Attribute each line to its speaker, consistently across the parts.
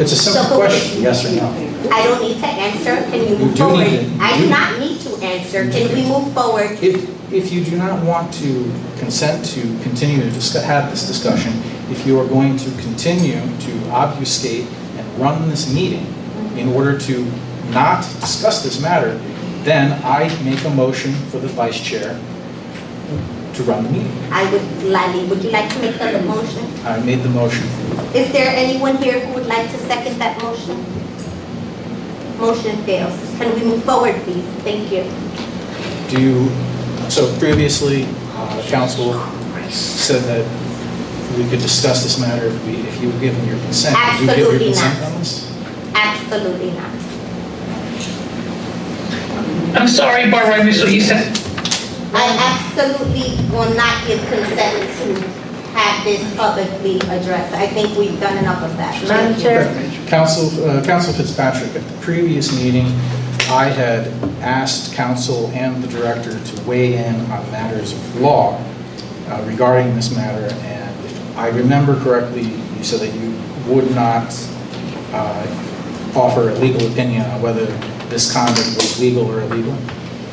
Speaker 1: It's a simple question, yes or no?
Speaker 2: I don't need to answer, can you
Speaker 1: You
Speaker 2: move
Speaker 1: do
Speaker 2: forward?
Speaker 1: need to-
Speaker 2: I do
Speaker 1: you-
Speaker 2: not need to answer, can we move forward?
Speaker 1: If, if you do not want to consent to continue to dis- have this discussion, if you are going to continue to obfuscate and run this meeting in order to not discuss this matter, then I make a motion for the vice chair to run the meeting.
Speaker 2: I would gladly, would you like to make that a motion?
Speaker 1: I made the motion.
Speaker 2: Is there anyone here who would like to second that motion? Motion fails. Can we move forward, please? Thank you.
Speaker 1: Do you, so previously, uh, council said that we could discuss this matter if we, if you were given your consent. Did you give your
Speaker 2: Absolutely
Speaker 1: consent
Speaker 2: not.
Speaker 1: on this?
Speaker 2: Absolutely not.
Speaker 3: I'm sorry, Barbara, I missed what you said.
Speaker 2: I absolutely will not give consent to have this publicly addressed. I think we've done enough of that.
Speaker 4: Madam Chair.
Speaker 1: Council, uh, Council Fitzpatrick, at the previous meeting, I had asked council and the director to weigh in on matters of law uh, regarding this matter, and if I remember correctly, you said that you would not uh, offer a legal opinion on whether this conduct was legal or illegal.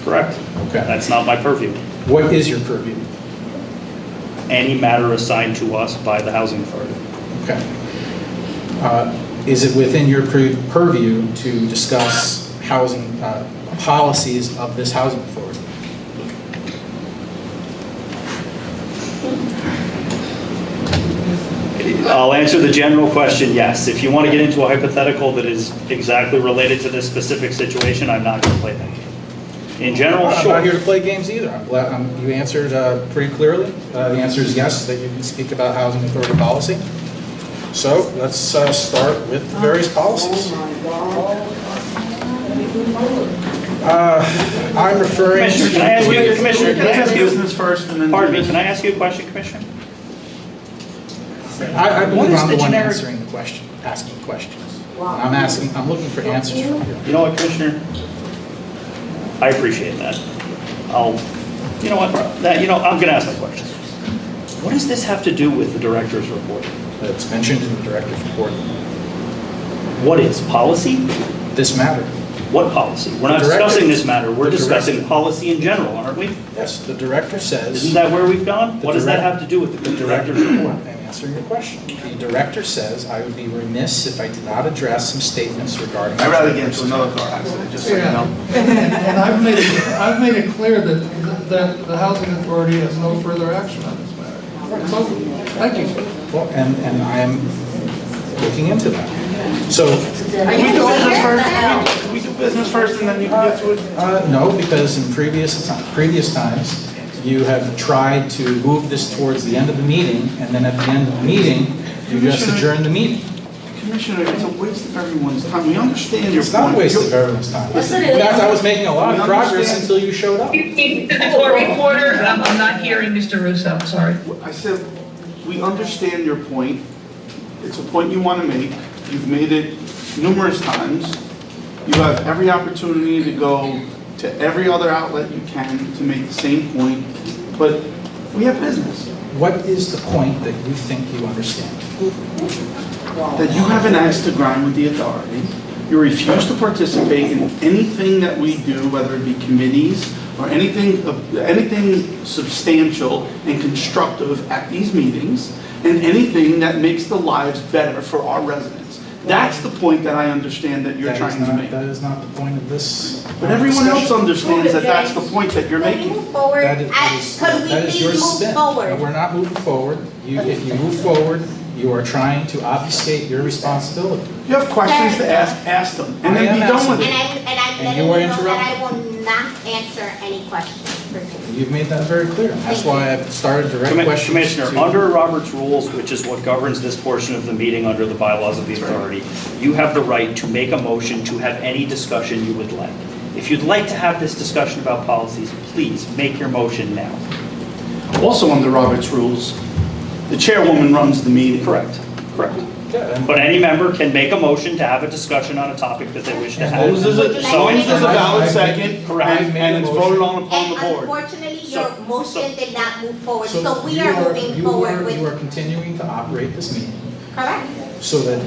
Speaker 5: Correct.
Speaker 1: Okay.
Speaker 5: That's not my purview.
Speaker 1: What is your purview?
Speaker 5: Any matter assigned to us by the housing authority.
Speaker 1: Okay. Uh, Is it within your pur- purview to discuss housing, uh, policies of this housing authority?
Speaker 5: I'll answer the general question, yes. If you want to get into a hypothetical that is exactly related to this specific situation, I'm not going to play that game. In general,
Speaker 1: I'm not here
Speaker 5: Oh, sure.
Speaker 1: to play games either. I'm glad, um, you answered uh, pretty clearly. Uh, The answer is yes, that you can speak about housing authority policy. So let's uh, start with the various policies. Uh, I'm referring
Speaker 5: Commissioner, can I ask
Speaker 1: to,
Speaker 5: you, Commissioner, can I
Speaker 6: Let's
Speaker 5: ask
Speaker 6: do
Speaker 5: you,
Speaker 6: business first and then.
Speaker 5: pardon me, can I ask you a question, Commissioner?
Speaker 1: I I
Speaker 5: What
Speaker 1: believe
Speaker 5: is
Speaker 1: I'm
Speaker 5: the
Speaker 1: the one
Speaker 5: generic-
Speaker 1: answering the question, asking questions. I'm asking, I'm looking for answers from you.
Speaker 5: You know what, Commissioner? I appreciate that. I'll, you know what, that, you know, I'm going to ask my question. What does this have to do with the director's report?
Speaker 1: It's mentioned in the director's report,
Speaker 5: What is, policy?
Speaker 1: this matter.
Speaker 5: What policy? We're not
Speaker 1: The director-
Speaker 5: discussing this matter, we're
Speaker 1: the director-
Speaker 5: discussing policy in general, aren't we?
Speaker 1: Yes, the director
Speaker 5: Isn't
Speaker 1: says,
Speaker 5: that where we've gone?
Speaker 1: The
Speaker 5: What does that
Speaker 1: direct-
Speaker 5: have to do with the director's report?
Speaker 1: I'm answering your question. The director says, I would be remiss if I did not address some statements regarding.
Speaker 6: I'd rather get into another car accident, just so you know.
Speaker 7: And I've made, it- I've made it clear that, that the housing authority has no further action on this matter. It's over. Thank you.
Speaker 1: Well, And, and I am looking into that. So,
Speaker 2: Are
Speaker 6: Can we
Speaker 2: you
Speaker 6: do
Speaker 2: going
Speaker 6: business
Speaker 2: here?
Speaker 6: first? Can we do business first and then you can get to it?
Speaker 1: uh, no, because in previous, ti- previous times, you have tried to move this towards the end of the meeting, and then at the end of the meeting, you just
Speaker 6: Commissioner-
Speaker 1: adjourn the meeting.
Speaker 6: Commissioner, it's a waste of everyone's time. We understand your point.
Speaker 1: It's not a waste of everyone's time. In fact, I was making a lot of progress
Speaker 6: Understand.
Speaker 1: until you showed up.
Speaker 3: To the Tory reporter, I'm I'm not hearing Mr. Russo, I'm sorry.
Speaker 6: I said, we understand your point. It's a point you want to make. You've made it numerous times. You have every opportunity to go to every other outlet you can to make the same point, but we have business.
Speaker 1: What is the point that you think you understand?
Speaker 6: that you have an axe to grind with the authority. You refuse to participate in anything that we do, whether it be committees or anything, of- anything substantial and constructive at these meetings, and anything that makes the lives better for our residents. That's the point that I understand that you're
Speaker 1: That is
Speaker 6: trying to
Speaker 1: not-
Speaker 6: make.
Speaker 1: That is not the point of this.
Speaker 6: But everyone else
Speaker 1: discussion.
Speaker 6: understands that that's the point that you're
Speaker 2: Can we
Speaker 6: making.
Speaker 2: move forward?
Speaker 1: That is-
Speaker 2: I-
Speaker 1: that is-
Speaker 2: Could we
Speaker 1: that is your
Speaker 2: please move
Speaker 1: spin. No,
Speaker 2: forward?
Speaker 1: We're not moving forward. You, if you move forward, you are trying to obfuscate your responsibility.
Speaker 6: You have questions to ask, ask them, and
Speaker 1: I
Speaker 6: then
Speaker 1: am
Speaker 6: be done
Speaker 1: asking.
Speaker 6: with
Speaker 2: And
Speaker 6: it.
Speaker 2: I'm, and I'm
Speaker 1: And
Speaker 2: letting
Speaker 1: you were
Speaker 2: you know that I
Speaker 1: interrupted.
Speaker 2: will not answer any questions for this.
Speaker 1: You've made that very clear. That's why I've started direct
Speaker 5: Commi-
Speaker 1: questions.
Speaker 5: Commissioner,
Speaker 1: to-
Speaker 5: under Robert's rules, which is what governs this portion of the meeting under the bylaws of the authority, you have the right to make a motion to have any discussion you would like. If you'd like to have this discussion about policies, please make your motion now.
Speaker 6: Also under Robert's rules, the chairwoman runs the meeting.
Speaker 5: Correct, correct.
Speaker 1: Yeah, and-
Speaker 5: But any member can make a motion to have a discussion on a topic that they wish to
Speaker 1: As
Speaker 5: have.
Speaker 1: long
Speaker 6: This is a,
Speaker 2: As
Speaker 5: So
Speaker 2: long as
Speaker 6: this
Speaker 5: any-
Speaker 6: is a valid
Speaker 1: I've-
Speaker 6: second,
Speaker 5: Correct.
Speaker 6: and and it's voted on upon the
Speaker 2: And
Speaker 6: board.
Speaker 2: unfortunately, your
Speaker 5: So-
Speaker 2: motion did not move forward,
Speaker 1: So
Speaker 2: so we
Speaker 1: you
Speaker 2: are moving
Speaker 1: you
Speaker 2: forward
Speaker 1: are- You are
Speaker 2: with,
Speaker 1: continuing to operate this meeting
Speaker 2: correct?
Speaker 1: so that